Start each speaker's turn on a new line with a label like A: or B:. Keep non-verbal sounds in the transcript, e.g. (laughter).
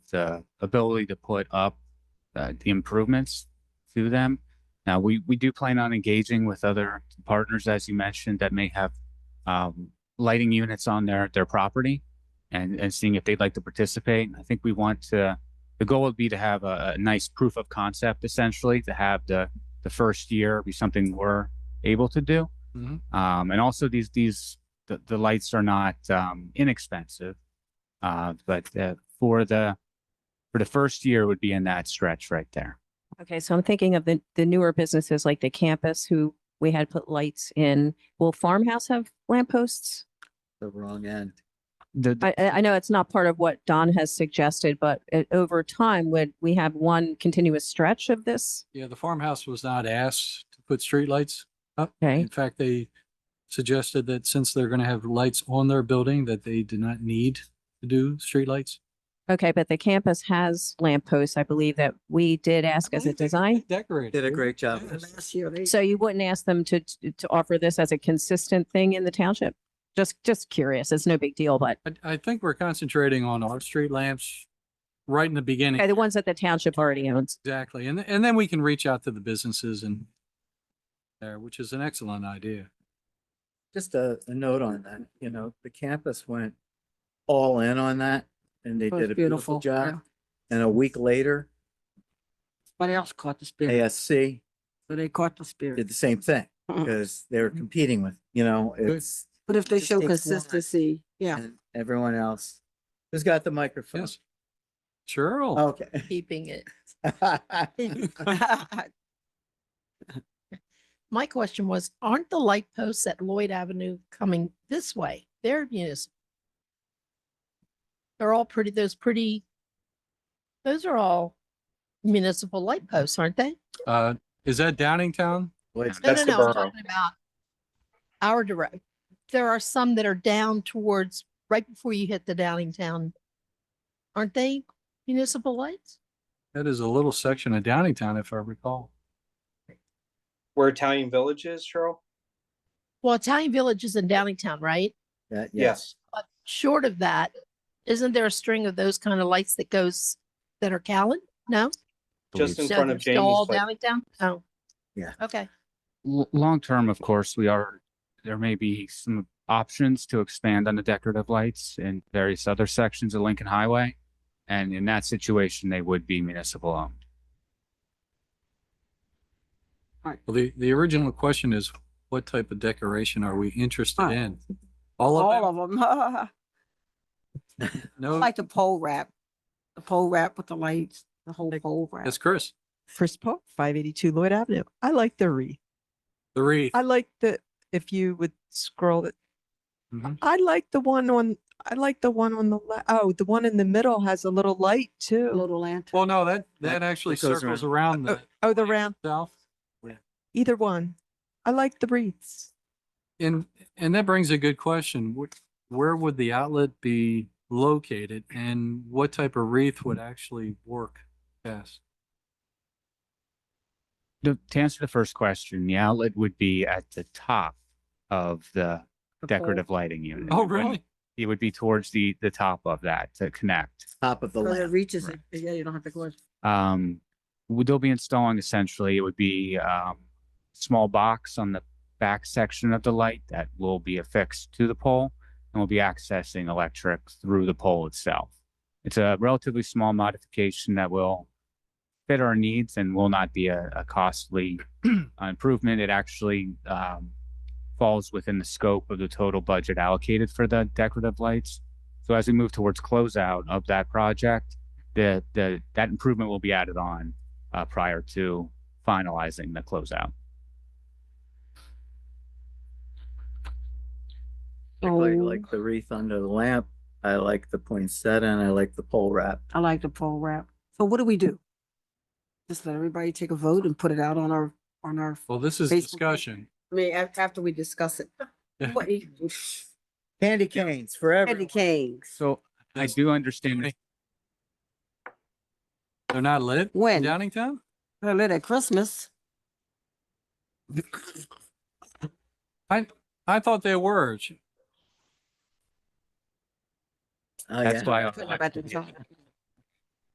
A: the ability to put up uh, the improvements to them. Now, we, we do plan on engaging with other partners, as you mentioned, that may have um, lighting units on their, their property and, and seeing if they'd like to participate. I think we want to, the goal would be to have a, a nice proof of concept essentially, to have the, the first year be something we're able to do.
B: Mhm.
A: Um, and also these, these, the, the lights are not, um, inexpensive. Uh, but, uh, for the, for the first year would be in that stretch right there.
C: Okay, so I'm thinking of the, the newer businesses like the campus who we had put lights in. Will farmhouse have lampposts?
B: The wrong end.
A: The,
C: I, I I know it's not part of what Don has suggested, but uh, over time, would we have one continuous stretch of this?
D: Yeah, the farmhouse was not asked to put streetlights.
C: Okay,
D: In fact, they suggested that since they're gonna have lights on their building, that they do not need to do streetlights.
C: okay, but the campus has lampposts, I believe that we did ask as a design.
D: Decorated.
B: Did a great job.
D: Yes.
C: So you wouldn't ask them to, to offer this as a consistent thing in the township? Just, just curious. It's no big deal, but
D: I, I think we're concentrating on our street lamps right in the beginning.
C: okay, the ones that the township already owns.
D: Exactly. And, th- and then we can reach out to the businesses and there, which is an excellent idea.
B: Just a, a note on that, you know, the campus went all in on that and they
E: It was
B: did a beautiful
E: beautiful, yeah.
B: job. And a week later,
E: What else caught the spirit?
B: ASC
E: So they caught the
B: did
E: spirit.
B: the same thing
E: Mhm.
B: because they were competing with, you know, it's
E: But if they
B: just
E: show
B: takes one.
E: consistency, yeah.
B: and everyone else. Who's got the microphone?
D: Yes. Cheryl,
B: Okay.
E: (laughs)
B: (laughs)
F: keeping it. My question was, aren't the light posts at Lloyd Avenue coming this way? They're municipal. They're all pretty, those pretty, those are all municipal light posts, aren't they?
B: Oh.
D: uh, is that Downingtown?
B: Wait,
F: No, no, no. I'm talking about Our direct, there are some that are down towards, right before you hit the Downingtown. Aren't they municipal lights?
D: That is a little section of Downingtown, if I recall.
G: where Italian Village is, Cheryl?
F: Well, Italian Village is in Downingtown, right?
B: that- Yes.
F: But short of that, isn't there a string of those kind of lights that goes, that are Callan? No?
G: Just in
F: No,
G: front of
F: they're still
G: Jamie's
F: all
G: place.
F: Downingtown? Oh.
B: Yeah.
F: Okay.
A: L- long term, of course, we are, there may be some options to expand on the decorative lights in various other sections of Lincoln Highway. And in that situation, they would be municipal owned.
D: Well, the, the original question is, what type of decoration are we interested
E: Right.
D: in? All
E: All
D: of
E: of (laughs) them.
D: them? No,
E: Like the pole wrap, the pole wrap with the lights, the whole pole wrap.
D: that's Chris,
H: Chris Pope, five eighty-two Lloyd Avenue. I like the wreath.
D: the wreath.
H: I like the, if you would scroll it.
D: Mhm.
H: I like the one on, I like the one on the, le- oh, the one in the middle has a little light too.
E: Little lantern.
D: Well, no, that,
B: That-
D: that actually
B: that goes around.
D: circles around the
H: Oh, the round,
D: south.
H: either one. I like the wreaths.
D: And, and that brings a good question. Wh- Where would the outlet be located and what type of wreath would actually work best?
A: To, to answer the first question, the outlet would be at the top of the decorative lighting unit.
D: Oh,
A: It wouldn't-
D: really?
A: It would be towards the, the top of that to connect.
B: Top of the
E: So it
B: lamp.
E: reaches
A: right.
E: it. Yeah, you don't have to go. as-
A: um what they'll be installing essentially it would be um small box on the back section of the light that will be affixed to the pole and will be accessing electric through the pole itself it's a relatively small modification that will fit our needs and will not be a, a costly uh, improvement it actually um, falls within the scope of the total budget allocated for the decorative lights so as we move towards closeout of that project the, the, that improvement will be added on, uh, prior to finalizing the closeout.
B: Like,
E: Oh,
B: like the wreath under the lamp. I like the poinsettia and I like the pole wrap.
E: I like the pole wrap. So what do we do? Just let everybody take a vote and put it out on our, on our.
D: Well, this is
E: Facebook.
D: discussion.
E: I mean, after we discuss it.
D: Yeah.
B: (laughs) Candy canes forever.
E: Candy canes.
A: So I do understand that
D: They're not lit? in
E: When?
D: Downingtown?
E: Well, lit
B: (laughs)
E: at Christmas.
D: I thought they were.
B: Oh,
A: that's
B: yeah.
A: why.
B: Oh,
E: About the time.